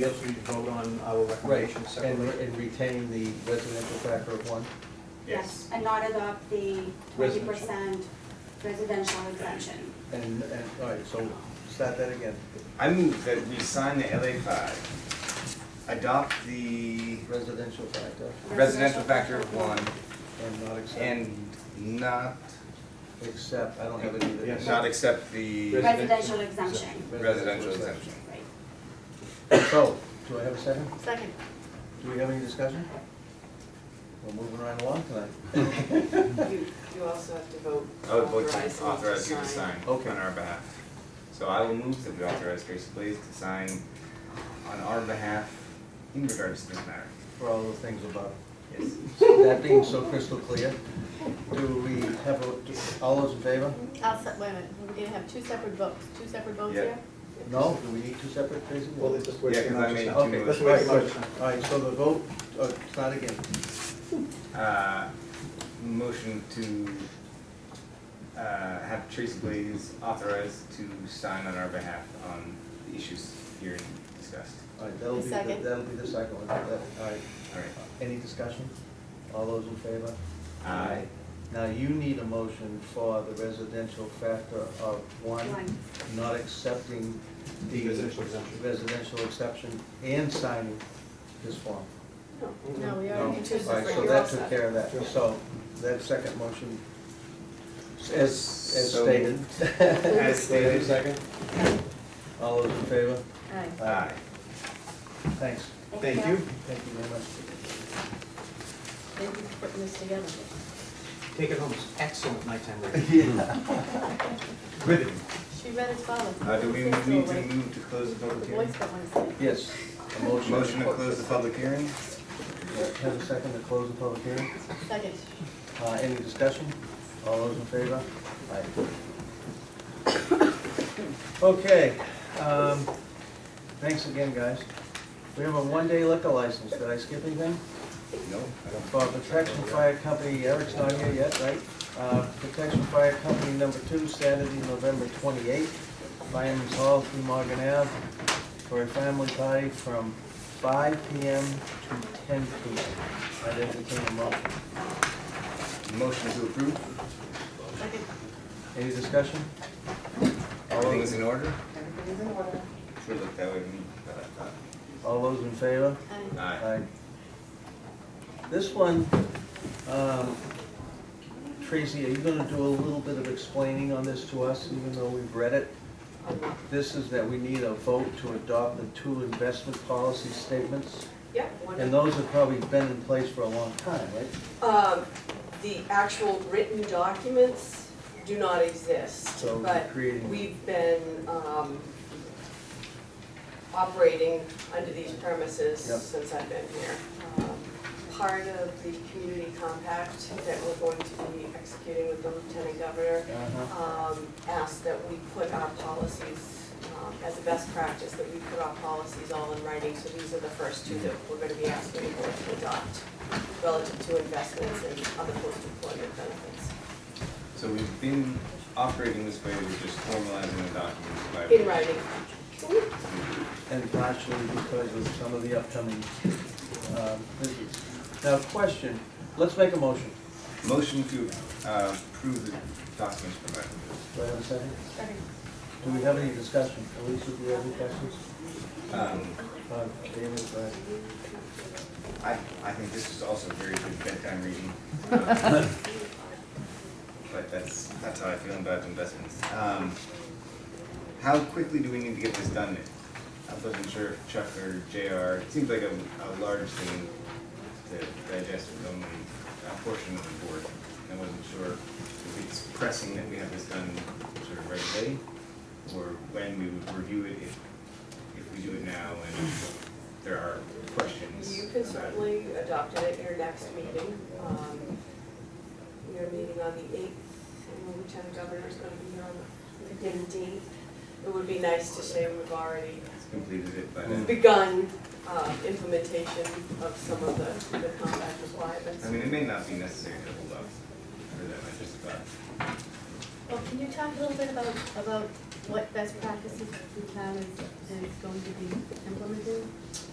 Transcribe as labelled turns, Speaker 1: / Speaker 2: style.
Speaker 1: Yes, we can vote on our
Speaker 2: Right,
Speaker 1: recommendations
Speaker 2: and,
Speaker 1: separately.
Speaker 2: and retain the residential factor of one?
Speaker 3: Yes, and not adopt the twenty percent residential exemption.
Speaker 2: And, and, all right, so start that again.
Speaker 4: I move that we sign the LA five, adopt the
Speaker 2: Residential factor
Speaker 4: residential factor of one,
Speaker 2: and not accept,
Speaker 4: and not,
Speaker 2: except, I don't have it either.
Speaker 1: Yes.
Speaker 4: not accept the
Speaker 3: Residential exemption,
Speaker 4: residential exemption.
Speaker 3: right.
Speaker 2: So, do I have a second?
Speaker 5: Second.
Speaker 2: Do we have any discussion? We're moving right along tonight.
Speaker 6: You, you also have to vote.
Speaker 4: I would vote to
Speaker 6: him to
Speaker 4: authorize you to sign
Speaker 2: Okay.
Speaker 4: on our behalf. So I will move that we authorize Grace Blaze to sign on our behalf in regards to this matter.
Speaker 2: For all the things above.
Speaker 4: Yes.
Speaker 2: That being so crystal clear, do we have, a- do- all those in favor?
Speaker 5: I'll, se- wait a minute, we're gonna have two separate votes, two separate votes
Speaker 4: Yeah.
Speaker 5: here?
Speaker 2: No, do we need two separate, Tracy?
Speaker 1: Well, it's just
Speaker 4: Yeah,
Speaker 1: wasting
Speaker 4: 'cause
Speaker 1: our
Speaker 4: I made
Speaker 1: time.
Speaker 4: two
Speaker 2: Okay,
Speaker 1: Let's
Speaker 2: that's
Speaker 4: motions.
Speaker 1: wait
Speaker 2: right,
Speaker 1: for our time.
Speaker 2: right. All right, so the vote, uh, start again.
Speaker 4: Uh, motion to, uh, have Tracy Blaze authorized to sign on our behalf on the issues here discussed.
Speaker 2: All right, that'll be, the-
Speaker 5: Second.
Speaker 2: that'll be the second one. That- All right,
Speaker 4: All right.
Speaker 2: any discussion? All those in favor?
Speaker 4: Aye.
Speaker 2: Now, you need a motion for the residential factor of one,
Speaker 3: One.
Speaker 2: not accepting
Speaker 1: The
Speaker 2: the
Speaker 1: residential exemption.
Speaker 2: residential exception and signing this form.
Speaker 5: No, we
Speaker 2: No.
Speaker 5: already
Speaker 2: All
Speaker 5: two
Speaker 2: right,
Speaker 5: separate.
Speaker 2: so
Speaker 6: You're
Speaker 2: that
Speaker 6: all
Speaker 2: took
Speaker 6: set.
Speaker 2: care of that. So that second motion, as, as
Speaker 4: So-
Speaker 2: stated.
Speaker 4: As stated.
Speaker 2: Second. All those in favor?
Speaker 5: Aye.
Speaker 4: Aye.
Speaker 2: Thanks.
Speaker 1: Thank you.
Speaker 2: Thank you very much.
Speaker 5: Thank you for putting this together.
Speaker 1: Take it home, it's excellent nighttime reading.
Speaker 4: Riveting.
Speaker 5: She read as follows.
Speaker 4: Uh, do we
Speaker 5: Six
Speaker 4: need
Speaker 5: to
Speaker 4: to
Speaker 5: away.
Speaker 4: move to close the
Speaker 5: The
Speaker 4: public
Speaker 5: voice
Speaker 4: hearing?
Speaker 5: that wants to.
Speaker 2: Yes, a motion.
Speaker 4: Motion to close the public hearing?
Speaker 2: Have a second to close the public hearing.
Speaker 5: Second.
Speaker 2: Uh, any discussion? All those in favor? Aye. Okay, um, thanks again, guys. We have a one-day liquor license. Did I skip anything?
Speaker 4: No, I don't.
Speaker 2: For Uh, Protection Fire Company, Eric's not here yet, right? Uh, Protection Fire Company number two, Saturday, November twenty-eighth, Fireman's Hall, through Morgan Ave, for a family party from five PM to ten PM. I entertain a motion.
Speaker 4: Motion to approve?
Speaker 5: Second.
Speaker 2: Any discussion? All
Speaker 4: Everything is
Speaker 2: those,
Speaker 4: in order?
Speaker 6: Everything is in order.
Speaker 4: Sure looked that way to me, but I thought.
Speaker 2: all those in favor?
Speaker 5: Aye.
Speaker 4: Aye.
Speaker 2: This one, um, Tracy, are you gonna do a little bit of explaining on this to us, even though we've read it?
Speaker 6: Um,
Speaker 2: This is that we need a vote to adopt the two investment policy statements,
Speaker 6: Yep, one
Speaker 2: and
Speaker 6: of,
Speaker 2: those have probably been in place for a long time, right?
Speaker 6: um, the actual written documents do not exist,
Speaker 2: So we're
Speaker 6: but
Speaker 2: creating-
Speaker 6: we've been, um, operating under these premises
Speaker 2: Yep.
Speaker 6: since I've been here. Um, Part of the community compact that we're going to be executing with the lieutenant governor
Speaker 2: Uh-huh.
Speaker 6: um, asked that we put our policies, um, as a best practice, that we put our policies all in writing, so these are the first two that we're gonna be asking the board to adopt relative to investments and other post-employment benefits.
Speaker 4: So we've been operating this way, we're just formalizing the documents by.
Speaker 6: In writing,
Speaker 2: And partially because of some of the upcoming, um, business. Now, question, let's make a motion.
Speaker 4: Motion to uh, approve the documents provided.
Speaker 2: Do I have a second?
Speaker 5: Second.
Speaker 2: Do we have any discussion? Elise, do you have any questions?
Speaker 4: Um,
Speaker 2: Uh, David, uh,
Speaker 4: I, I think this is also very good bedtime reading. Um, But that's, that's how I feel about investments. Um, How quickly do we need to get this done? I wasn't sure if Chuck or JR, it seems like a, a large thing to digest with only a portion of the board. I wasn't sure if it's pressing that we have this done sort of right away, or when we would review it if, if we do it now and there are questions.
Speaker 6: you can
Speaker 4: about it.
Speaker 6: certainly adopt it at your next meeting. Um, We are meeting on the eighth, and the lieutenant governor is gonna be here on the fifteenth. It would be nice to say we've already
Speaker 4: Completed it by then.
Speaker 6: begun uh, implementation of some of the the combat requirements.
Speaker 4: I mean, it may not be necessary to hold up for them, I just thought.
Speaker 5: Well, can you talk a little bit about, about what best practices the town is, is going to be implementing?